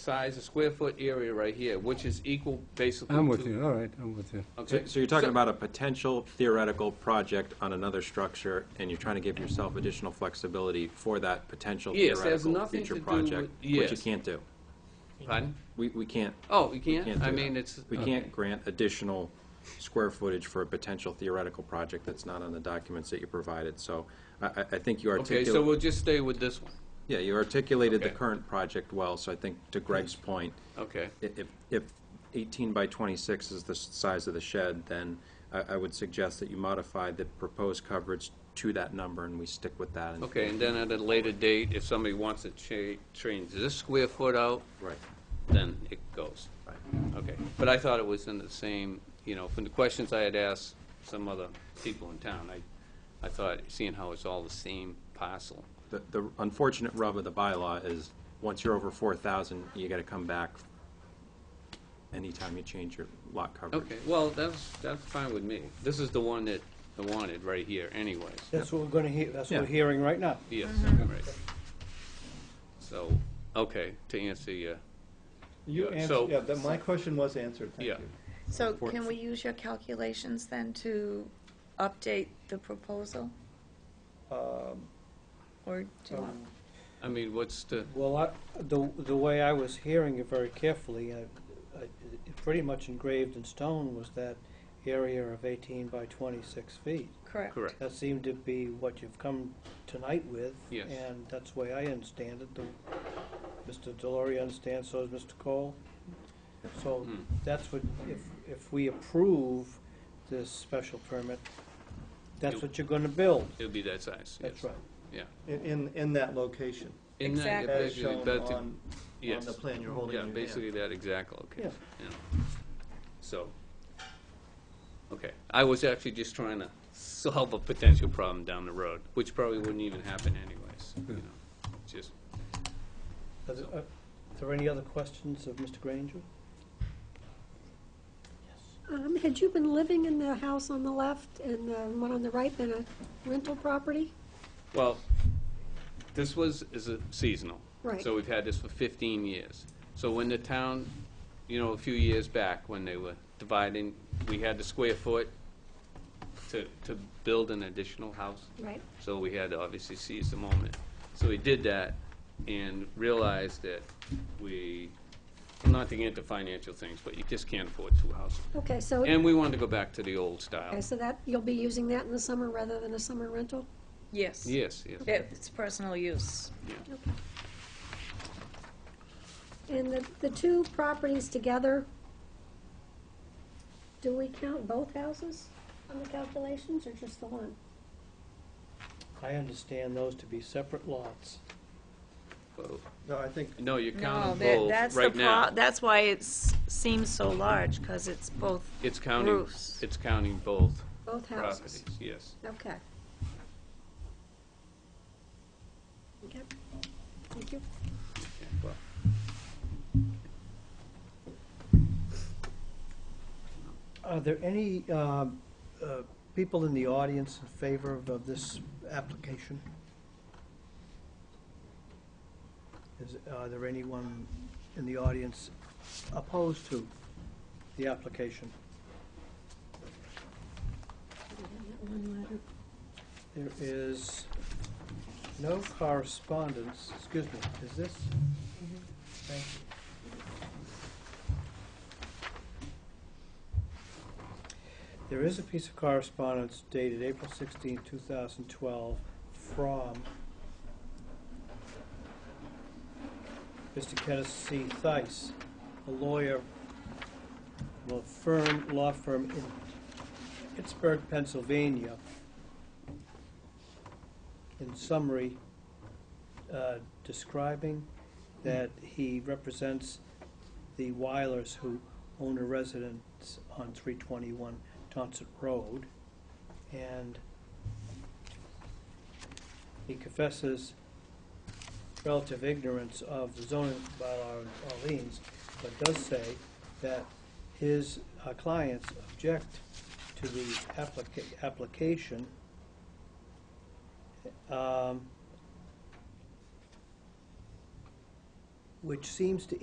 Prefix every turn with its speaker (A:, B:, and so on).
A: size, a square foot area right here, which is equal basically to...
B: I'm with you, all right, I'm with you.
A: Okay.
C: So so you're talking about a potential theoretical project on another structure, and you're trying to give yourself additional flexibility for that potential
A: Yes, has
C: theoretical
A: nothing to
C: future
A: do
C: project,
A: with-
C: which you
A: yes.
C: can't do.
A: Pardon?
C: We, we can't,
A: Oh, you
C: can't
A: can't?
C: do
A: I
C: that.
A: mean, it's...
C: we can't grant additional square footage for a potential theoretical project that's not on the documents that you provided, so I, I- I think you
A: Okay, so
C: articulated,
A: we'll just stay with this one.
C: yeah, you articulated the
A: Okay.
C: current project well, so I think to Greg's point,
A: Okay.
C: i- if, if 18 by 26 is the s- size of the shed, then I, I would suggest that you modify the proposed coverage to that number, and we stick with that. and-
A: Okay, and then at a later date, if somebody wants to cha- change this square foot out,
C: Right,
A: then it goes.
C: right.
A: Okay. But I thought it was in the same, you know, from the questions I had asked some other people in town, I, I thought, seeing how it's all the same parcel.
C: The, the unfortunate rub of the bylaw is, once you're over 4,000, you gotta come back anytime you change your lot coverage.
A: Okay, well, that's, that's fine with me. This is the one that I wanted right here anyways.
D: That's what we're gonna hear, that's what
C: Yeah.
D: we're hearing right now.
A: Yes, right. So, okay, to answer your,
E: You
A: Yeah,
E: answered,
A: so-
E: yeah, that, my question was answered, thank
A: Yeah.
E: you.
F: So can we use your calculations then to update the proposal?
E: Um,
F: Or do you want?
E: um,
A: I mean, what's the,
D: Well, I, the, the way I was hearing it very carefully, I, I, it pretty much engraved in stone was that area of eighteen by twenty-six feet.
F: Correct.
A: correct,
D: That seemed to be what you've come tonight with.
A: Yes.
D: And that's the way I understand it. The, Mr. Delory understands, so does Mr. Cole. So
A: Hmm.
D: that's what, if, if we approve this special permit, that's
A: Yep.
D: what you're gonna build.
A: it'll be that size, yes.
D: That's right.
A: Yeah.
E: In, in, in that location,
A: In that,
F: Exactly.
E: as
A: basically,
E: shown
A: that to-
E: on, on
A: yes.
E: the plan you're holding
A: Yeah,
E: in your hand.
A: basically that exact location, yeah. So, okay, I was actually just trying to solve a potential problem down the road, which probably wouldn't even happen anyways, you know, just,
D: Are there- are there any other questions of Mr. Granger?
G: Um, Had you been living in the house on the left and the one on the right been a rental property?
A: Well, this was, is a seasonal.
G: Right.
A: So we've had this for 15 years. So when the town, you know, a few years back, when they were dividing, we had the square foot to, to build an additional house.
G: Right.
A: So we had to obviously seize the moment. So we did that and realized that we, not to get into financial things, but you just can't afford two houses.
G: Okay, so,
A: And we wanted to go back to the old style.
G: okay, so that, you'll be using that in the summer rather than a summer rental?
F: Yes.
A: Yes, yes.
F: It's personal use.
G: Okay. And the, the two properties together, do we count both houses on the calculations or just the one?
D: I understand those to be separate lots.
A: Well,
E: No, I think,
A: No, you
F: No,
A: count them
F: that,
A: both
F: that's the
A: right now.
F: pro, that's why it seems so large, because it's both,
A: It's counting,
F: Roofs.
A: it's counting both
G: Both
A: properties,
G: houses?
A: yes.
G: Okay. Okay, thank you.
A: Yeah, well.
D: Are there any um, uh, people in the audience in favor of- of this application? Is, are there anyone in the audience opposed to the application?
G: One letter.
D: There is no correspondence, excuse me, is this? Thank you. There is a piece of correspondence dated April 16, 2012, from Mr. Kenneth C. Thice, a lawyer, well, firm, law firm in Pittsburgh, Pennsylvania, in summary, uh, describing that he represents the Weilers who own a residence on 321 Tonsett Road. And he confesses relative ignorance of the zoning bylaw in Orleans, but does say that his uh, clients object to the applica- application um, which seems to